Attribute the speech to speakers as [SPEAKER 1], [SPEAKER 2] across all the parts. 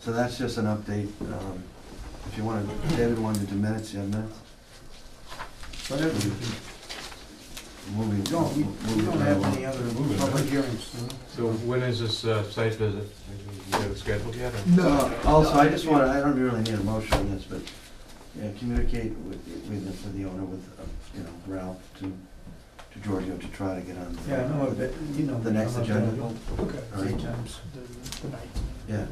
[SPEAKER 1] So that's just an update. Um, If you want to, David wanted to do minutes, you have minutes?
[SPEAKER 2] Whatever.
[SPEAKER 1] Moving.
[SPEAKER 2] No, we, we don't have any other public hearings.
[SPEAKER 3] So when is this uh, site visit? You got it scheduled yet? or-
[SPEAKER 1] No. Uh, Also, I just want, to I don't really need a motion on this, but, yeah, communicate with, with, the- with the owner, with, uh, you know, Ralph to, to Giorgio to try to get on.
[SPEAKER 2] Yeah, I know, but, you know.
[SPEAKER 1] The next
[SPEAKER 2] I'm not
[SPEAKER 1] agenda.
[SPEAKER 2] gonna-
[SPEAKER 4] Okay.
[SPEAKER 1] All right.
[SPEAKER 2] Sometimes.
[SPEAKER 1] Yeah,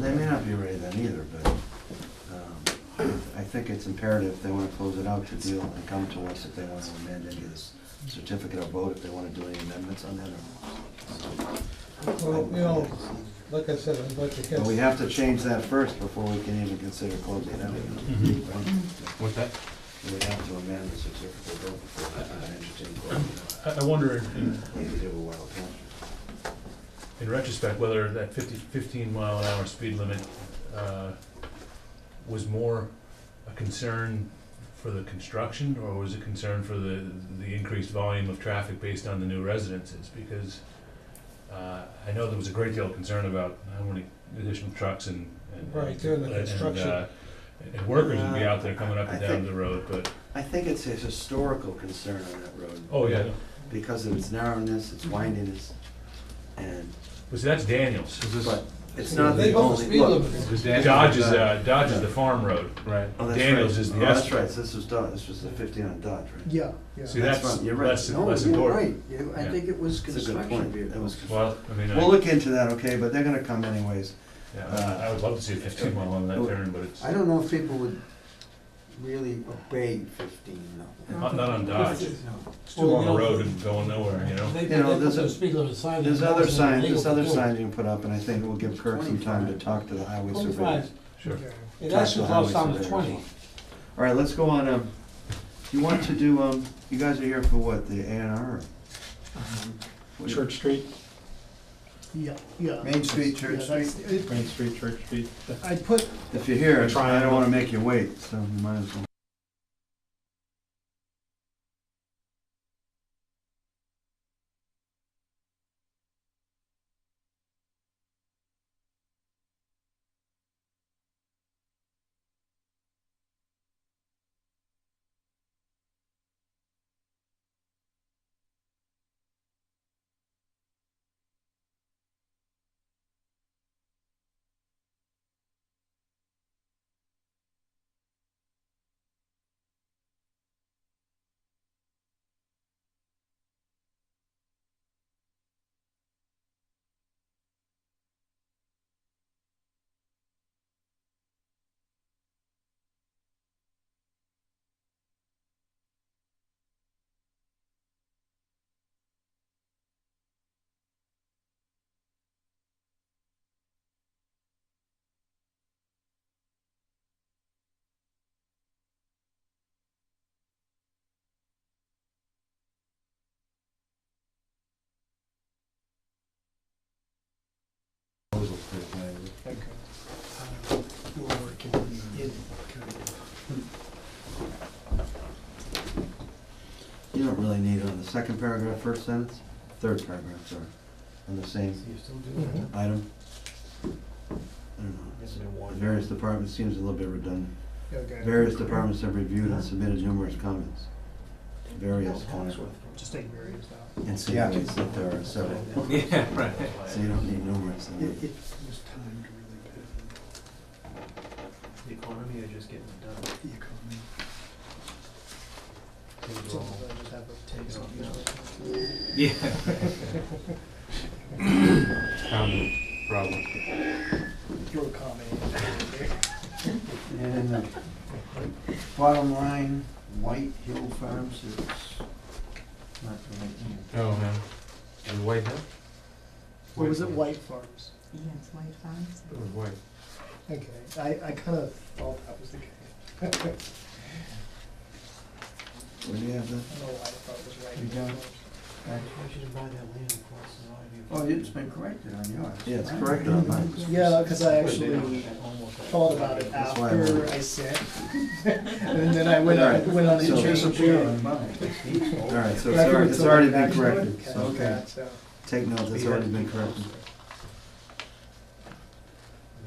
[SPEAKER 1] they may not be ready then either, but, um, I think it's imperative, if they wanna close it out, to deal and come to us if they wanna amend any of this certificate of vote, if they wanna do any amendments on that or.
[SPEAKER 4] Well, you know, like I said, I'd like to
[SPEAKER 1] But
[SPEAKER 4] catch.
[SPEAKER 1] we have to change that first before we can even consider closing it out.
[SPEAKER 5] Mm-hmm.
[SPEAKER 1] right?
[SPEAKER 3] What's that?
[SPEAKER 1] We have to amend the certificate of vote before we can entertain closing it
[SPEAKER 5] I, I wonder in,
[SPEAKER 1] out. We do a wild country.
[SPEAKER 5] in retrospect whether that 50 15 mile an hour speed limit, uh, was more a concern for the construction or was it concern for the, the increased volume of traffic based on the new residences? Because, uh, I know there was a great deal of concern about how many additional trucks and, and.
[SPEAKER 4] Right, during the
[SPEAKER 5] and, uh,
[SPEAKER 4] construction.
[SPEAKER 5] And workers would be out there coming up and
[SPEAKER 1] Uh, I
[SPEAKER 5] down
[SPEAKER 1] think-
[SPEAKER 5] the road, but,
[SPEAKER 1] I think it's a historical concern on that road.
[SPEAKER 5] oh, yeah,
[SPEAKER 1] Because of its narrowness,
[SPEAKER 4] Mm-hmm.
[SPEAKER 1] its windiness, and
[SPEAKER 5] but see, that's Daniels.
[SPEAKER 3] Is this,
[SPEAKER 1] But it's not
[SPEAKER 4] They
[SPEAKER 1] the
[SPEAKER 4] bumped the
[SPEAKER 1] only,
[SPEAKER 4] speed
[SPEAKER 1] look.
[SPEAKER 4] limit.
[SPEAKER 3] is that?
[SPEAKER 5] Dodge is, uh, Dodge is the farm road.
[SPEAKER 3] Right.
[SPEAKER 1] Oh, that's
[SPEAKER 5] Daniels
[SPEAKER 1] right.
[SPEAKER 5] is the
[SPEAKER 1] Oh, That's
[SPEAKER 5] extra.
[SPEAKER 1] right, so this was Dodge, this was the fifteen on Dodge, right?
[SPEAKER 2] Yeah,
[SPEAKER 5] See,
[SPEAKER 1] That's
[SPEAKER 5] that's
[SPEAKER 1] fine, you're right.
[SPEAKER 5] less,
[SPEAKER 2] No,
[SPEAKER 5] less
[SPEAKER 2] you're
[SPEAKER 5] important.
[SPEAKER 2] right. You- I
[SPEAKER 5] Yeah.
[SPEAKER 2] think it was
[SPEAKER 1] That's a good
[SPEAKER 2] construction
[SPEAKER 1] point. That was
[SPEAKER 2] vehicles.
[SPEAKER 1] good.
[SPEAKER 5] Well, I mean,
[SPEAKER 1] We'll
[SPEAKER 5] I,
[SPEAKER 1] look into that, okay, but they're gonna come anyways.
[SPEAKER 5] yeah, I- I would love to see a fifteen mile on that turn, but it's,
[SPEAKER 2] I don't know if people would really obey fifteen, no.
[SPEAKER 5] not, not on Dodge,
[SPEAKER 2] No.
[SPEAKER 5] it's too long a road and going nowhere, you know?
[SPEAKER 4] They-
[SPEAKER 1] You
[SPEAKER 4] they
[SPEAKER 1] know,
[SPEAKER 4] put
[SPEAKER 1] there's
[SPEAKER 4] the
[SPEAKER 1] a-
[SPEAKER 4] speed limit sign
[SPEAKER 1] There's
[SPEAKER 4] there,
[SPEAKER 1] other
[SPEAKER 4] it's
[SPEAKER 1] signs,
[SPEAKER 4] illegal
[SPEAKER 1] there's
[SPEAKER 4] to
[SPEAKER 1] other
[SPEAKER 4] do it.
[SPEAKER 1] signs you can put up, and I think we'll give Kirk some time to talk to the highway surveyors.
[SPEAKER 4] Twenty-five.
[SPEAKER 5] Sure.
[SPEAKER 4] It
[SPEAKER 1] Talk to
[SPEAKER 4] actually
[SPEAKER 1] the
[SPEAKER 4] drops
[SPEAKER 1] highway
[SPEAKER 4] down to
[SPEAKER 1] surveyors.
[SPEAKER 4] twenty.
[SPEAKER 1] All right, let's go on, um, you want to do, um, you guys are here for what, the A and R?
[SPEAKER 6] Um, Church Street,
[SPEAKER 7] Yeah, yeah.
[SPEAKER 2] Main Street, Church
[SPEAKER 7] Yeah, that's- it-
[SPEAKER 6] Main Street, Church Street.
[SPEAKER 7] I put,
[SPEAKER 1] If you're here, I don't
[SPEAKER 6] Triangle.
[SPEAKER 1] wanna make you wait, so you might as well.
[SPEAKER 7] uh,
[SPEAKER 1] You don't really need it on the second paragraph, first sentence, third paragraph, sorry, on the same item. I don't know. The Various departments seems a little bit redundant.
[SPEAKER 7] okay.
[SPEAKER 1] Various departments have reviewed and submitted numerous comments. Various comments.
[SPEAKER 7] Just take various out.
[SPEAKER 1] Insinuates that there are several,
[SPEAKER 3] Yeah, right.
[SPEAKER 1] so you don't need numerous. I
[SPEAKER 2] It,
[SPEAKER 1] mean,
[SPEAKER 2] it was timed really bad.
[SPEAKER 6] The economy is just getting done.
[SPEAKER 2] The economy.
[SPEAKER 7] So I just have a take some.
[SPEAKER 3] Yeah. Common problem.
[SPEAKER 7] Your comment.
[SPEAKER 2] And the bottom line, White Hill Farms is not the right name.
[SPEAKER 3] Oh, man. Is it white now?
[SPEAKER 7] What was it, White Farms?
[SPEAKER 8] Yes, white fox.
[SPEAKER 3] It was white.
[SPEAKER 7] Okay, I, I kind of thought that was the case.
[SPEAKER 1] Where do you have that?
[SPEAKER 7] I don't know why I thought it was White.
[SPEAKER 2] You don't?
[SPEAKER 7] Farms.
[SPEAKER 2] Oh, it's been corrected on yours.
[SPEAKER 1] Yeah, it's corrected on mine.
[SPEAKER 7] Yeah, because I actually thought about it
[SPEAKER 1] That's why I
[SPEAKER 7] after
[SPEAKER 1] wondered.
[SPEAKER 7] I said. And then I went,
[SPEAKER 1] All right,
[SPEAKER 7] on went on
[SPEAKER 1] so-
[SPEAKER 7] and
[SPEAKER 2] It's
[SPEAKER 7] changed
[SPEAKER 2] a
[SPEAKER 7] it.
[SPEAKER 2] beer on mine.
[SPEAKER 1] All right, so
[SPEAKER 7] But
[SPEAKER 1] it's
[SPEAKER 7] I figured
[SPEAKER 1] already, it's already been
[SPEAKER 7] somebody
[SPEAKER 1] corrected,
[SPEAKER 7] actually
[SPEAKER 1] so
[SPEAKER 7] would catch that, so.
[SPEAKER 1] take note, it's already been corrected.